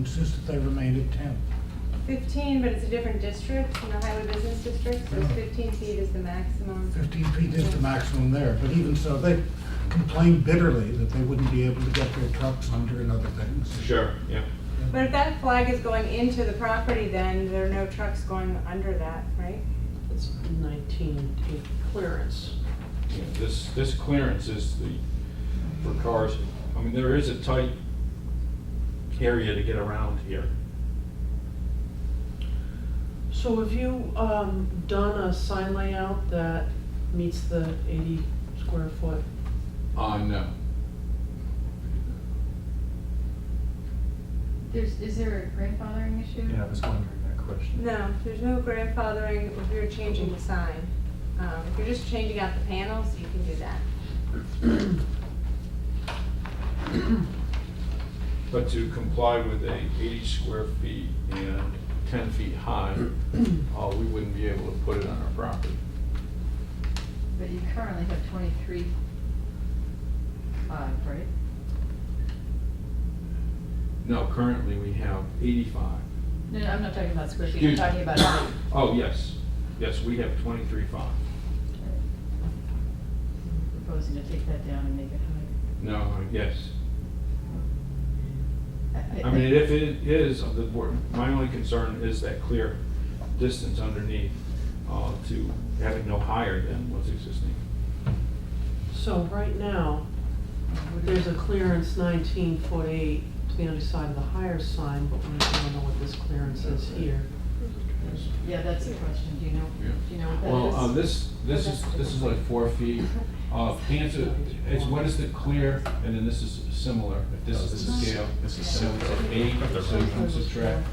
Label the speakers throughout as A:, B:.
A: insist that they remain at ten.
B: 15, but it's a different district, in the highway business district, so it's
A: Yeah.
B: 15 feet is the maximum.
A: Fifteen feet is the maximum there, but even so, they complained bitterly that they wouldn't be able to get their trucks under and other things.
C: Sure, yeah.
B: But if that flag is going into the property, then there are no trucks going under that, right?
D: It's nineteen eight clearance.
C: Yeah, This, this clearance is the, for cars, I mean, there is a tight area to get around here.
D: So have you, um, done a sign layout that meets the eighty square foot?
C: Uh, no.
E: There's, is there a grandfathering issue?
F: Yeah, I was wondering that question.
B: No, there's no grandfathering if you're changing the sign. Um, If you're just changing out the panels, you can do that.
C: But to comply with a eighty square feet and ten feet high, uh, we wouldn't be able to put it on our property.
E: But you currently have twenty-three five, right?
C: No, currently we have eighty-five.
E: No, no, I'm not talking about square feet, I'm
C: Excuse
E: talking
C: me.
E: about height.
C: Oh, yes, yes, we have twenty-three five.
E: Proposing to take that down and make it
C: No, yes.
E: higher.
C: I mean, if it is, of the board, my only concern is that clear distance underneath uh, to have it no higher than what's existing.
D: So right now, there's a clearance nineteen foot eight to the underside of the higher sign, but we don't know what this clearance is here.
E: Yeah, that's the question, do you know,
C: Yeah.
E: do you know what that is?
C: Well, uh, this, this is, this is like four feet. Uh, Panther, it's, what is the clear, and then this is similar, if this is the scale.
F: This is
C: So
F: similar.
C: it's at eight, so you can subtract,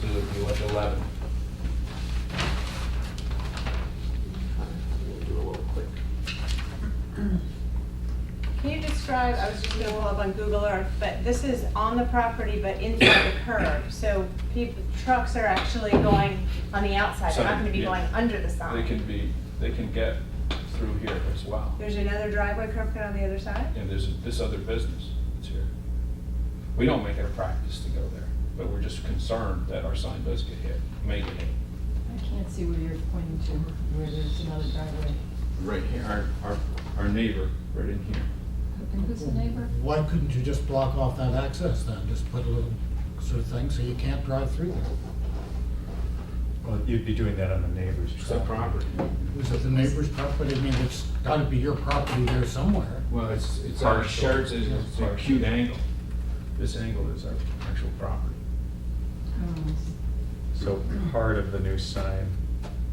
C: so it'd be like eleven.
D: We'll do a little quick.
B: Can you describe, I was just gonna pull up on Google Earth, but this is on the property but inside the curb. So people, trucks are actually going on the outside, they're not gonna be
C: Side,
B: going
C: yeah.
B: under the sign.
C: They can be, they can get through here as well.
B: There's another driveway curb cut on the other side?
C: And there's this other business that's here. We don't make it a practice to go there, but we're just concerned that our sign does get hit, may get hit.
E: I can't see where you're pointing to, where there's another driveway.
C: Right here. Our, our, our neighbor, right in here.
E: And who's the neighbor?
A: Why couldn't you just block off that access then? Just put a little sort of thing so you can't drive through there?
F: Well, you'd be doing that on the neighbor's.
C: It's that property.
A: Is it the neighbor's property? I mean, it's gotta be your property there somewhere.
C: Well, it's, it's our
F: Partial.
C: shared, it's it's an acute angle. This angle is our actual property.
F: So part of the new sign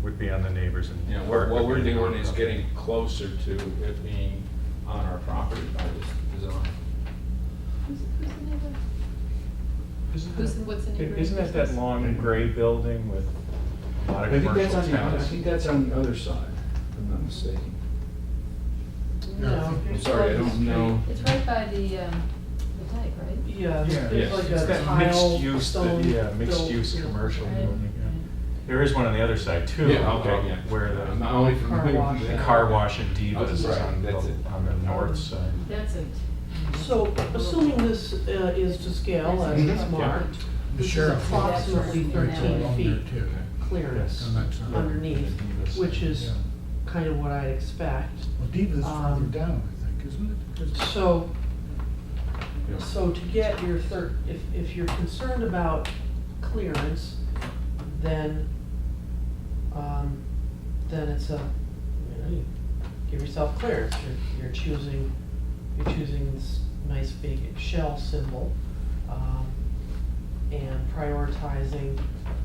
F: would be on the neighbors and.
C: You know, what, what we're doing is getting closer to it being on our property by this design.
E: Who's, who's the neighbor?
F: Isn't
E: Who's the- what's the
F: that-
E: neighbor's
F: Isn't that that
E: business?
F: long gray building with a lot of
C: I think that's
F: commercial
C: on the, I
F: towers?
C: think that's on the other side, if I'm not mistaken.
A: Yeah.
D: No.
C: I'm sorry, I don't know.
E: It's right by the, um, the dike, right?
D: Yeah,
C: Yeah.
D: there's like
F: It's
D: a
F: that
D: tile,
F: mixed use, that-
D: stone.
F: yeah, mixed
D: built-
F: use commercial
E: Right,
F: building. yeah.
E: right.
F: There is one on the other side too.
C: Yeah, okay, yeah.
F: Where the.
C: I'm not only
E: Car
C: familiar
E: wash.
C: with
F: The
C: that.
F: car wash and
C: Oh,
F: Divas is
C: right,
F: on the,
C: that's it.
F: on the north side.
E: That's it.
D: So assuming this uh, is to scale as
F: Mm-hmm.
D: it's marked,
A: The
D: this is
A: sheriff.
D: approximately
E: Yeah.
A: Right, so along
D: thirteen
A: there
D: feet
A: too.
D: clearance
A: And that's, uh,
D: underneath, which is
A: Yeah.
D: kind of what I'd expect.
A: Well, Diva's further
D: Um,
A: down, I think, isn't it? 'Cause-
D: So,
C: Yeah.
D: so to get your third, if, if you're concerned about clearance, then, um, then it's a, you know, you give yourself clearance. You're, you're choosing, you're choosing this nice big shell symbol, um, and prioritizing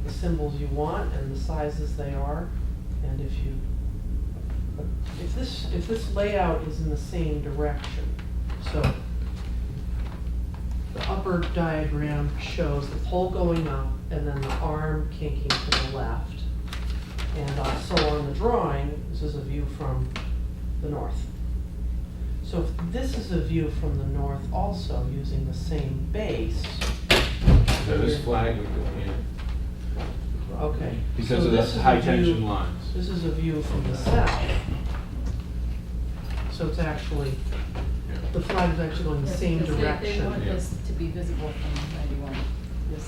D: the symbols you want and the sizes they are. And if you, if this, if this layout is in the same direction, so the upper diagram shows the pole going up and then the arm kinking to the left. And also on the drawing, this is a view from the north. So if this is a view from the north also using the same base.
C: So this flag would go here.
D: Okay.
C: Because
D: so
C: of
D: this is
C: the
D: a
C: high
D: view-
C: tension lines.
D: This is a view from the south. So it's actually,
C: Yeah.
D: the flag is actually going the
E: Yes,
D: same
E: because they- They want
D: direction.
C: Yeah.
E: this to be visible from